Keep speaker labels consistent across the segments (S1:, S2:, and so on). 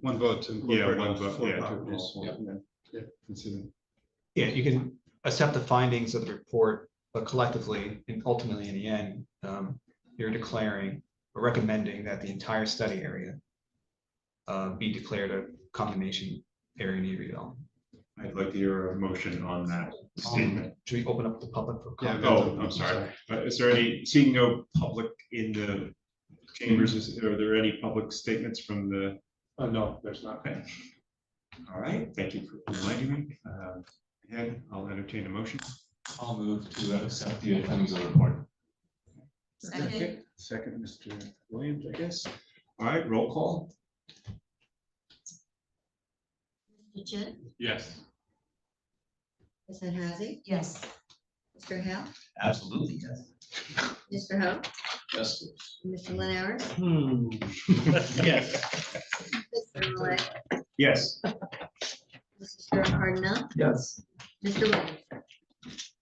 S1: One vote to
S2: Yeah,
S1: incorporate
S2: one
S1: all
S2: vote,
S1: four
S2: yeah, to
S1: properties.
S2: all four, yeah.
S1: Yeah, consider.
S3: Yeah, you can accept the findings of the report, but collectively and ultimately in the end, um, you're declaring or recommending that the entire study area uh, be declared a condemnation area need redevelopment.
S2: I'd like to hear a motion on that statement.
S3: Um, Should we open up the public for
S1: Yeah,
S2: Oh,
S3: comment?
S2: I'm sorry. Uh, Is there any, seeing no public in the chambers, is- are there any public statements from the?
S1: Uh, no, there's not.
S2: Okay. All right, thank you for reminding me. Uh, Again, I'll entertain a motion.
S4: I'll move to accept the findings of the report.
S5: Second.
S1: Second, Mr. Williams, I guess.
S2: All right, roll call.
S5: Mr. Chin,
S2: Yes.
S5: Ms. Hazzy,
S6: Yes,
S5: Mr. Hal,
S4: Absolutely, yes.
S5: Mr. Ho,
S4: Yes.
S5: Mr. Lynn Howard,
S4: Yes.
S5: Mr. Malay,
S2: Yes.
S5: Mrs. Durham Hardenow,
S4: Yes.
S5: Mr. Williams.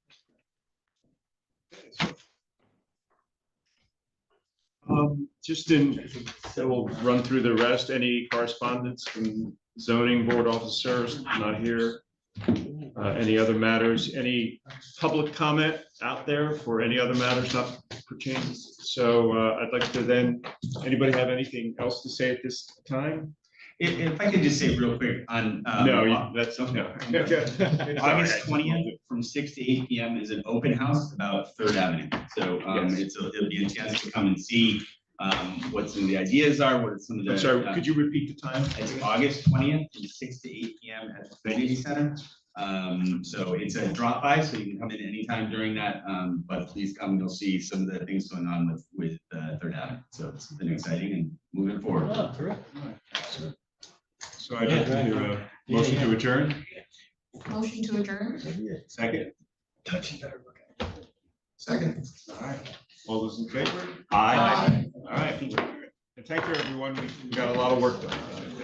S2: Um, just in, so we'll run through the rest. Any correspondence from zoning board officers not here? Uh, any other matters? Any public comment out there for any other matters not pertaining? So uh, I'd like to then, anybody have anything else to say at this time?
S7: If, if I could just say real quick on. um,
S2: No, you- that's, no.
S7: August twentieth from six to eight P M is an open house about Third Avenue. So, um,
S2: Yes.
S7: it's, a- it'll be a chance to come and see, um, what some of the ideas are, what some of the.
S2: I'm sorry,
S7: uh,
S2: could you repeat the time?
S7: It's August twentieth from six to eight P M at the community center. Um, so it's a drop by, so you can come in anytime during that, um, but please come, you'll see some of the things going on with, with, uh, Third Avenue. So it's been exciting and moving forward.
S2: So I'd like to do a motion to adjourn,
S6: motion to adjourn?
S2: second.
S7: Second.
S2: All right, all those in favor?
S7: Aye.
S2: All right, and thank you, everyone, we we got a lot of work done.